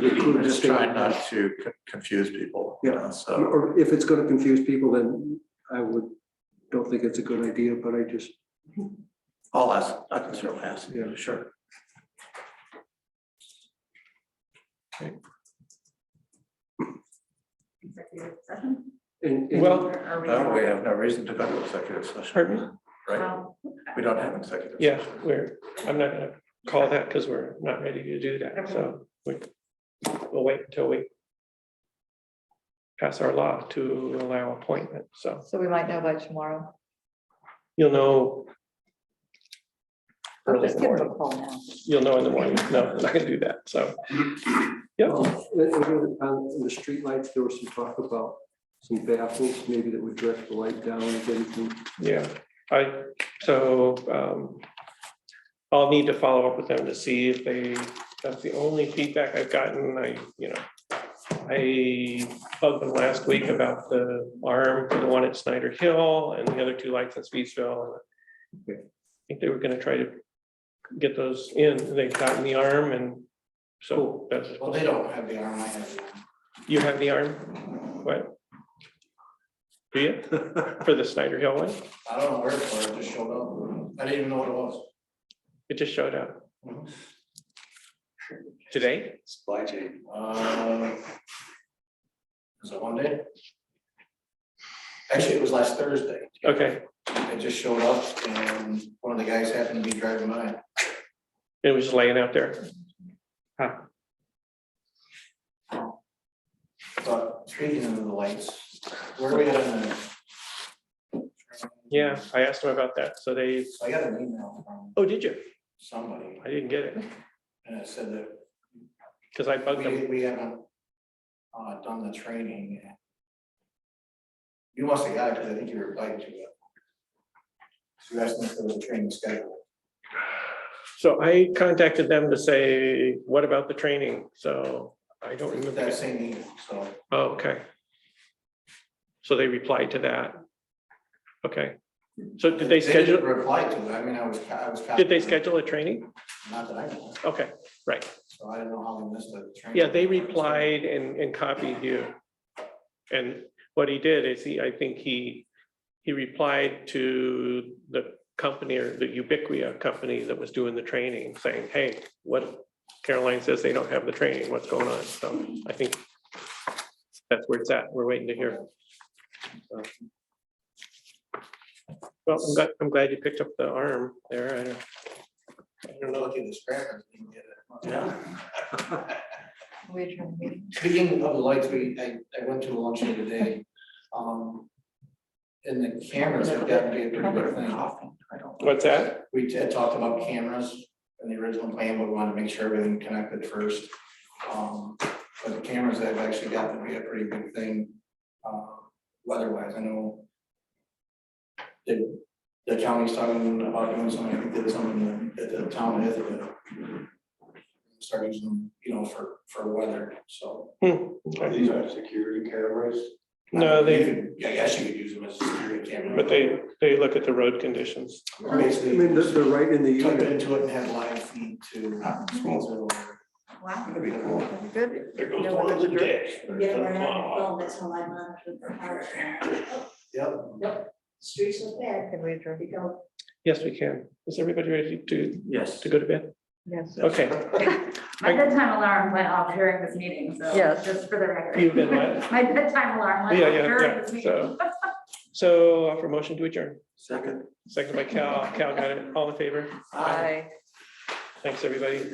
include this. Just trying not to co- confuse people. you Yeah. know, So, Or if it's gonna confuse people, then I would, don't think it's a good idea, but I just, I'll ask, I can certainly ask, Yeah. sure. executive session? and. and- Well, Or Oh, are we- No, Uh, we have no reason to go to executive session, Pardon me? right? Well, We don't have executive. Yeah, we're, I'm not gonna call that because we're not ready to do that, so we, we'll wait until we pass our law to allow appointment, so So we might know by tomorrow. you'll know I'll early in just the give them a morning, call now. you'll know in the morning, no, I'm not gonna do that, so. Yep, Um, and- and really, On on the streetlights, there was some talk about some baffles, maybe that would direct the light down if anything. yeah, I, so, um, I'll need to follow up with them to see if they, that's the only feedback I've gotten, I, you know. I bugged them last week about the arm, for the one at Snyder Hill and the other two lights in Speedsville. I think they were gonna try to get those in, they've gotten the arm and so that's, Well, they don't have the arm, I have. the arm. you have the arm? What? Do you, for the Snyder Hill one? I don't know where it's for, it just showed up. I didn't even know what it was. It just showed up. Today? Supply chain. Uh, Was it one day? Actually, it was last Thursday. Okay, It just showed up and one of the guys happened to be driving by. it was just laying out there. But speaking of the lights, where are we at on the? Yeah, I asked them about that, so they, So I got an email from oh, did you? somebody I didn't get it, and it said that because I bugged them. We, we haven't, uh, done the training. yet. You must have got it, because I think you replied to it. So you asked me for the training schedule. So I contacted them to say, what about the training? So I don't remember. That same email, so Oh, Okay. So they replied to that. Okay. So did they didn't schedule, Reply to it, I mean, I was, I was. did they copied. schedule a training? Not that I know, of, Okay, right. so I don't know how they missed the training. Yeah, they replied and, and copied you. And what he did is he, I think he, he replied to the company or the Ubiquia company that was doing the training, saying, hey, what Caroline says they don't have the training, what's going on? So I think that's where it's at. We're waiting to hear. Well, I'm glad, I'm glad you picked up the arm there. I don't, I don't You're know. looking at the scrapper, you can get it. Yeah. We adjourn the meeting. Speaking of the lights, we, I, I went to a luncheon today, um, and the cameras have got to be a pretty good thing. What's that? We had talked about cameras in the original plan, but we wanted to make sure everything connected first. Um, But the cameras have actually gotten to be a pretty good thing, uh, weather-wise, I know. The, the county's talking about doing something, I think did something at the town of Ithaca. Start using, them, you know, for, for weather, so. Hmm, These are security cameras? No, they- I guess you could use them as a security camera. But they, they look at the road conditions. I mean, they're, they're right in the. Tuck it into it and have live feed to. Wow. That'd be cool. Good. Yeah, we're gonna Yeah, we're not, well, that's all I'm on for the power. Yep. Streets are bad, Can we adjourn? we go. Yes, we can. Is everybody ready to, Yes. to go to bed? Yes. Okay, My bedtime alarm went off during this meeting, so Yes. just for the record. You did what? My bedtime alarm went Yeah, off yeah, yeah, during this meeting. so. so uh, for motion to adjourn, Second. second by Cal, Cal got it, all in favor? Bye. Thanks, everybody.